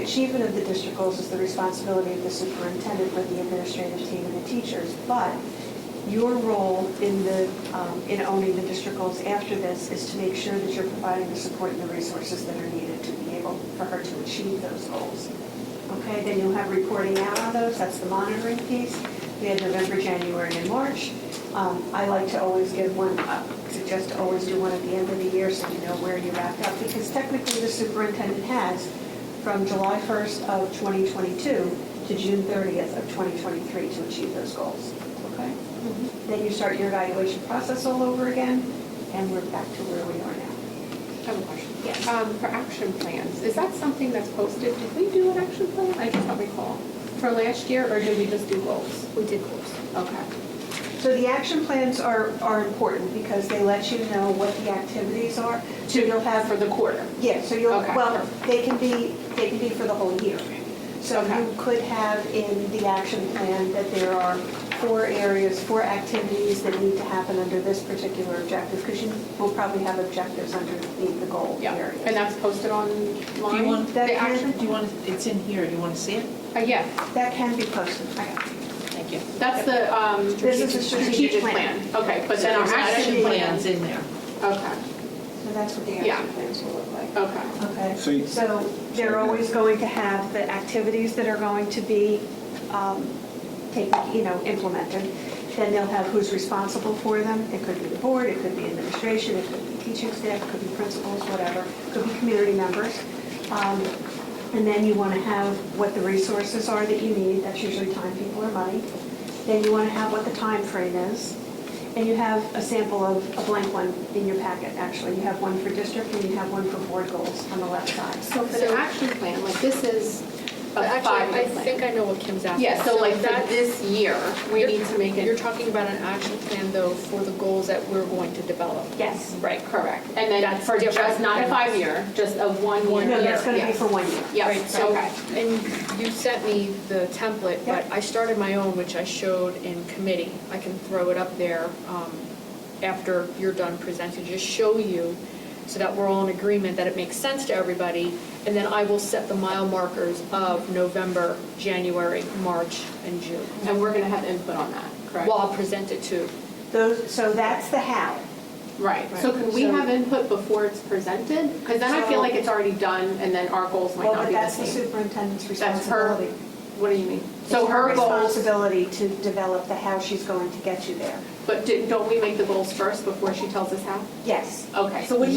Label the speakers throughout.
Speaker 1: achievement of the district goals is the responsibility of the superintendent with the administrative team and the teachers, but your role in the, um, in owning the district goals after this is to make sure that you're providing the support and the resources that are needed to be able for her to achieve those goals. Okay, then you'll have reporting out on those, that's the monitoring piece. We had November, January, and March. Um, I like to always give one, I suggest to always do one at the end of the year so you know where you wrapped up, because technically the superintendent has from July 1st of 2022 to June 30th of 2023 to achieve those goals. Okay?
Speaker 2: Mm-hmm.
Speaker 1: Then you start your evaluation process all over again, and we're back to where we are now.
Speaker 2: I have a question.
Speaker 1: Yes.
Speaker 2: Um, for action plans, is that something that's posted? Did we do an action plan? I just don't recall. For last year, or did we just do goals?
Speaker 3: We did goals.
Speaker 2: Okay.
Speaker 1: So the action plans are, are important because they let you know what the activities are. So you'll have,
Speaker 2: For the quarter.
Speaker 1: yeah, so you'll,
Speaker 2: Okay.
Speaker 1: well, they can be, they can be for the whole year. So
Speaker 2: Okay.
Speaker 1: you could have in the action plan that there are four areas, four activities that need to happen under this particular objective, because you will probably have objectives underneath the goal
Speaker 2: Yeah,
Speaker 1: areas.
Speaker 2: and that's posted online?
Speaker 4: Do you want,
Speaker 1: That
Speaker 2: The action?
Speaker 1: can,
Speaker 4: do you want, it's in here, do you want to see it?
Speaker 2: Uh, yeah,
Speaker 1: that can be posted. I got it.
Speaker 4: Thank you.
Speaker 2: that's the, um.
Speaker 1: This is the strategic plan.
Speaker 2: Okay, but then our
Speaker 4: There's
Speaker 2: action plan.
Speaker 4: plans in there.
Speaker 2: Okay,
Speaker 1: So that's what the
Speaker 2: Yeah.
Speaker 1: action plans will look like.
Speaker 2: okay.
Speaker 5: So
Speaker 1: Okay,
Speaker 5: you-
Speaker 1: so they're always going to have the activities that are going to be um, taken, you know, implemented. Then they'll have who's responsible for them. It could be the board, it could be administration, it could be teaching staff, it could be principals, whatever, It could be community members. Um, And then you want to have what the resources are that you need, that's usually time, people, or money. Then you want to have what the time frame is. And you have a sample of a blank one in your packet, actually. You have one for district and you have one for board goals on the left side.
Speaker 2: So for
Speaker 3: So-
Speaker 2: the action plan, like this is
Speaker 3: But
Speaker 2: a
Speaker 3: actually, I
Speaker 2: five-year
Speaker 3: think
Speaker 2: plan.
Speaker 3: I know what Kim's after.
Speaker 2: Yeah, so like for
Speaker 3: that-
Speaker 2: this year, we
Speaker 3: you're-
Speaker 2: need to make
Speaker 3: You're
Speaker 2: it,
Speaker 3: talking about an action plan, though, for the goals that we're going to develop.
Speaker 1: Yes.
Speaker 2: right, correct. And then
Speaker 3: That's
Speaker 2: for just,
Speaker 3: different
Speaker 2: not a
Speaker 3: than-
Speaker 2: five-year, just a one-year.
Speaker 1: No, that's going to be
Speaker 2: Yeah.
Speaker 1: for one year.
Speaker 3: Right,
Speaker 2: Yes,
Speaker 3: so,
Speaker 2: okay.
Speaker 3: and you sent me the template, but
Speaker 1: Yep.
Speaker 3: I started my own, which I showed in committee. I can throw it up there um, after you're done presenting, just show you, so that we're all in agreement, that it makes sense to everybody. And then I will set the mile markers of November, January, March, and June.
Speaker 2: And we're going to have input on that, correct?
Speaker 3: Well, I'll present it to,
Speaker 1: Those, so that's the how.
Speaker 2: Right, so can we
Speaker 3: So-
Speaker 2: have input before it's presented? Because then I feel like it's already done, and then our goals might
Speaker 1: Well,
Speaker 2: not
Speaker 1: but
Speaker 2: be the
Speaker 1: that's the
Speaker 2: same.
Speaker 1: superintendent's
Speaker 2: That's her,
Speaker 1: responsibility.
Speaker 2: what do you mean? So
Speaker 1: It's
Speaker 2: her goals,
Speaker 1: Responsibility to develop the how she's going to get you there.
Speaker 2: but di- don't we make the goals first before she tells us how?
Speaker 1: Yes.
Speaker 2: Okay, so,
Speaker 6: So we, we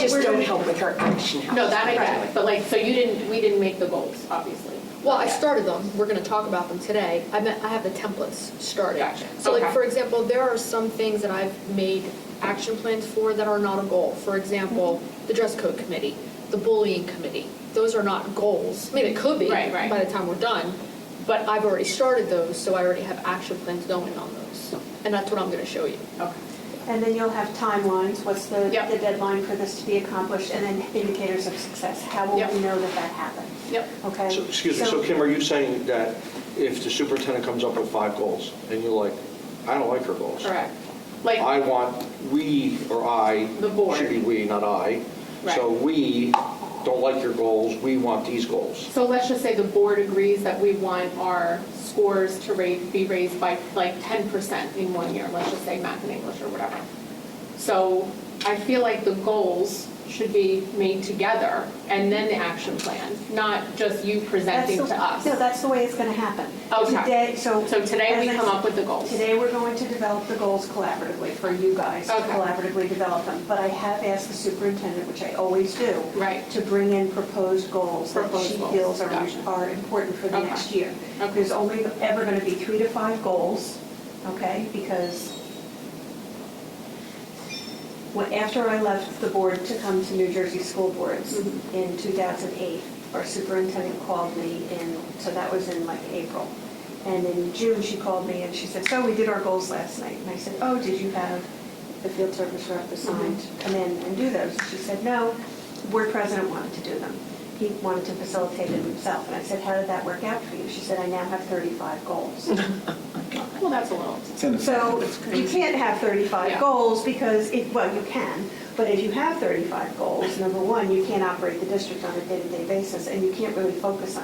Speaker 6: just don't help with her action house.
Speaker 2: no, that I get, but like, so you didn't, we didn't make the goals, obviously.
Speaker 3: well, I
Speaker 2: Okay.
Speaker 3: started them, we're gonna talk about them today. I meant, I have the templates started.
Speaker 2: Gotcha.
Speaker 3: So like,
Speaker 2: Okay.
Speaker 3: for example, there are some things that I've made action plans for that are not a goal. For example, the dress code committee, the bullying committee, those are not goals. I mean, it could be
Speaker 2: Right, right.
Speaker 3: by the time we're done, but I've already started those, so I already have action plans going on those. And that's what I'm gonna show you.
Speaker 2: Okay,
Speaker 1: And then you'll have timelines, what's the
Speaker 2: Yep.
Speaker 1: the deadline for this to be accomplished, and then indicators of success. How will
Speaker 2: Yep.
Speaker 1: we know that that happened?
Speaker 2: yep.
Speaker 1: Okay?
Speaker 7: So, excuse me, so Kim, are you saying that if the superintendent comes up with five goals, and you're like, I don't like her goals?
Speaker 2: Correct. Like,
Speaker 7: I want, we, or I.
Speaker 2: The board.
Speaker 7: Should be we, not I. So
Speaker 2: Right.
Speaker 7: we don't like your goals, we want these goals.
Speaker 2: so let's just say the board agrees that we want our scores to rate, be raised by like ten percent in one year, let's just say math and English or whatever. So I feel like the goals should be made together, and then the action plan, not just you
Speaker 1: That's
Speaker 2: presenting
Speaker 1: the-
Speaker 2: to us.
Speaker 1: No, that's the way it's going to happen.
Speaker 2: Okay.
Speaker 1: Today, so.
Speaker 2: So today we come up with the goals.
Speaker 1: Today, we're going to develop the goals collaboratively for you guys to
Speaker 2: Okay.
Speaker 1: collaboratively develop them. But I have asked the superintendent, which I always do.
Speaker 2: Right.
Speaker 1: To bring in proposed goals that
Speaker 2: Proposed
Speaker 1: she
Speaker 2: goals,
Speaker 1: feels are,
Speaker 2: gotcha.
Speaker 1: are important for the
Speaker 2: Okay.
Speaker 1: next year.
Speaker 2: Okay.
Speaker 1: There's only ever going to be three to five goals, okay? Because when, after I left the board to come to New Jersey School Boards in 2008, our superintendent called me in, so that was in like April. And in June, she called me and she said, so we did our goals last night. And I said, oh, did you have the field service rep assigned to come in and do those? And she said, no, board president wanted to do them. he wanted to facilitate it himself. And I said, how did that work out for you? She said, I now have 35 goals.
Speaker 2: Well, that's a little.
Speaker 5: It's in the
Speaker 1: So you can't have 35
Speaker 2: Yeah.
Speaker 1: goals because, it- well, you can, but if you have 35 goals, number one, you can't operate the district on a day-to-day basis, and you can't really focus on